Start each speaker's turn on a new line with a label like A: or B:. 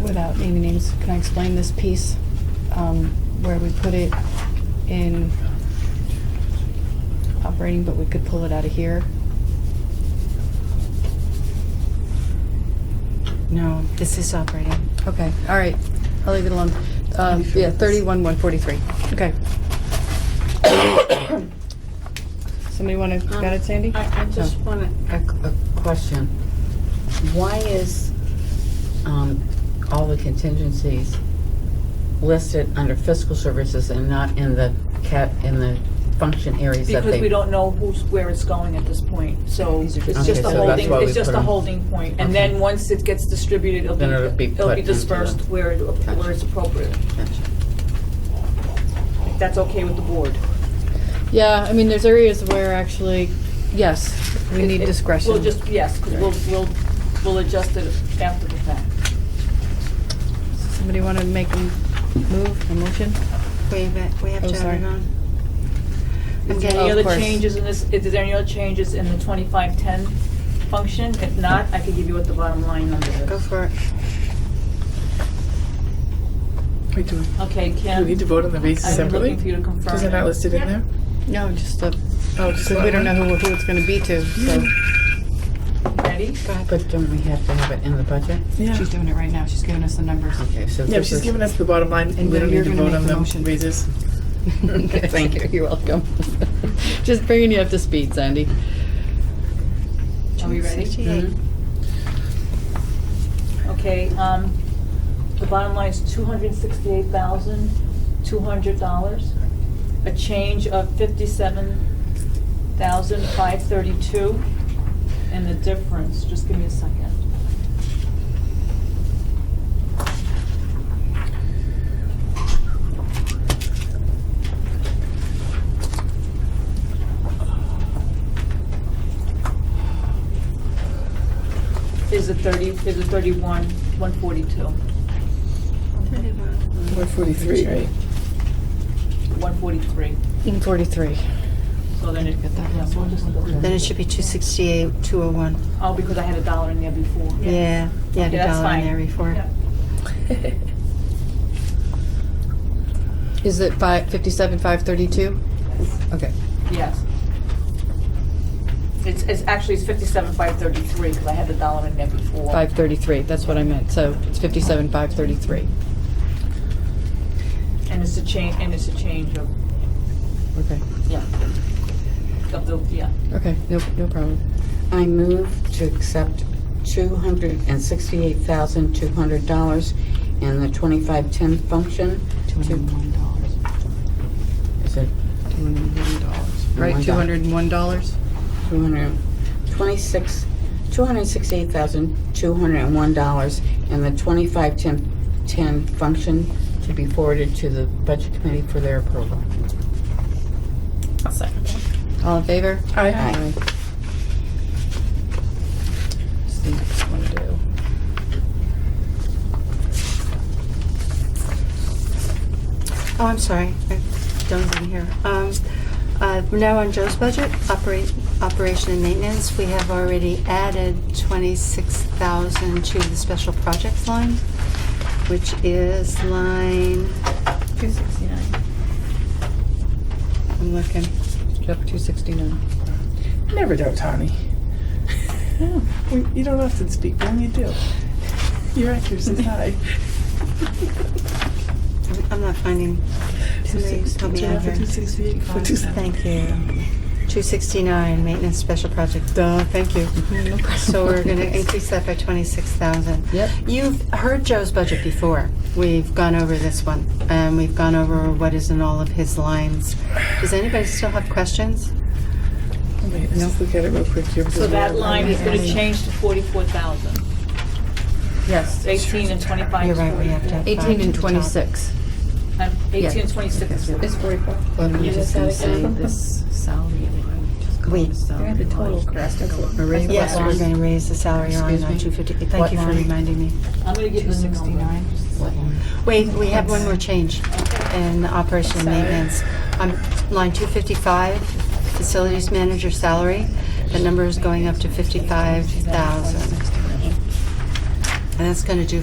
A: without naming names, can I explain this piece? Um, where we put it in operating, but we could pull it out of here.
B: No, this is operating.
A: Okay, all right, I'll leave it alone. Um, yeah, thirty-one, one forty-three, okay. Somebody wanna,
C: Um,
A: got it, Sandy?
C: I, I just
A: No.
C: want to,
B: A, a question. Why is, um, all the contingencies listed under fiscal services and not in the cat, in the function areas that they?
D: Because we don't know who's, where it's going at this point, so it's
A: These are just-
D: just
B: Okay,
D: a
B: so that's
D: holding,
B: why we
D: it's just
B: put
D: a
B: 'em-
D: holding point. And
B: Okay.
D: then once it gets distributed, it'll be,
B: Then it'll be
D: it'll
B: put
D: be
B: into the-
D: dispersed where, it-
B: Gotcha.
D: where it's appropriate. If That's okay with the board.
A: Yeah, I mean, there's areas where actually, yes, we
D: It-
A: need
D: it-
A: discretion.
D: We'll just, yes, 'cause we'll, we'll, we'll adjust it after the fact.
A: Somebody wanna make a move, a motion?
C: wait a minute, we have
A: Oh,
C: to have
A: sorry.
C: it on. I'm
A: Oh, of
D: Is there any
C: getting,
D: other
A: course.
D: changes in this, is there any other changes in the twenty-five, ten function? If not, I could give you what the bottom line number
C: go
D: is.
C: for it.
E: Wait, do we,
D: Okay,
E: do we
D: Kim,
E: need to vote on the basis
D: I'm
E: separately?
D: looking for you to confirm.
E: Is it not listed in there?
A: No, just the,
E: Oh, just
A: we don't know who, who it's gonna be to, so.
D: Ready?
B: But don't we have to have it in the budget?
E: Yeah,
A: She's doing it right now, she's giving us the numbers.
B: Okay, so
E: yeah,
B: this
E: she's
B: is-
E: giving us the bottom line,
A: And
E: we don't
A: you're
E: need to
A: gonna make
E: vote on
A: the
E: the
A: motion.
E: raises.
A: Thank you. You're welcome. Just bringing you up to speed, Sandy.
D: Are we ready?
C: Sixty-eight.
A: Mm-hmm.
D: Okay, um, the bottom line is two hundred sixty-eight thousand, two hundred dollars. A change of fifty-seven thousand, five thirty-two. And the difference, just give me a second. Is it thirty, is it thirty-one, one forty-two,
E: One forty-three, right?
D: one forty-three?
A: 43.
D: So then it,
A: Get that
D: yeah,
A: last
D: so we'll
A: one.
D: just look at
C: Then
D: it.
C: it should be two sixty-eight, two oh one.
D: Oh, because I had a dollar in there before.
C: Yeah, yeah,
D: Okay,
C: the
D: that's
C: dollar in
D: fine.
C: there before.
D: Yeah.
A: Is it fi- 57, 532? Okay.
D: Yes. It's, it's actually, it's fifty-seven, five thirty-three, because I had the dollar in there before.
A: 533, that's what I meant. So it's 57, 533.
D: And it's a change, and it's a change of,
A: Okay.
D: yeah, of the, yeah.
A: Okay, no, no problem.
B: I move to accept two hundred and sixty-eight thousand, two hundred dollars in the twenty-five-ten function.
A: $201.
B: Is it
A: $201. Right, $201?
B: two hundred, twenty-six, two hundred and sixty-eight thousand, two hundred and one dollars in the twenty-five-ten, ten function to be forwarded to the budget committee for their approval.
A: All in favor?
E: Aye.
B: Aye.
A: Just think it's gonna do.
C: Oh, I'm sorry, I don't even hear. Um, uh, we're now on Joe's budget, operate, operation and maintenance. We have already added twenty-six thousand to the special projects line, which is line,
D: Two sixty-nine.
A: I'm looking. Up 269.
E: Never doubt Tony. We- You don't often speak, but when you do, your accuracy's high.
C: I'm- I'm not finding, somebody help me out here.
E: Two sixty-eight, four two seven.
C: Thank you. 269, maintenance special project, duh, thank you. So we're going to increase that by 26,000.
A: Yep.
C: You've heard Joe's budget before. We've gone over this one, and we've gone over what is in all of his lines. Does anybody still have questions?
E: Wait, let's just look at it real quick here.
D: So that line is gonna change to forty-four thousand.
A: Yes.
D: Eighteen and twenty-five
C: You're
D: is
C: right, we have to
D: forty-four.
C: have five
A: 18
C: to
A: and
C: the top.
A: 26.
D: Um, Eighteen and twenty-six is
A: It's 44. Well,
F: You
A: we're just
F: just had
A: gonna
F: it
A: say
F: down.
A: this salary line, just call
C: Wait.
A: it salary
F: the total
A: line.
F: cost, that's what-
A: Marie
C: Yes, we're
A: Webster's-
C: going to raise the salary line
A: Excuse
C: on
A: me?
C: 250.
A: What
C: Thank you for
A: line?
C: reminding me.
D: I'm gonna give them the number.
C: Wait, we have one more change in operation and
F: Salary.
C: maintenance. On line 255, facilities manager salary, the number is going up to 55,000. And that's going to do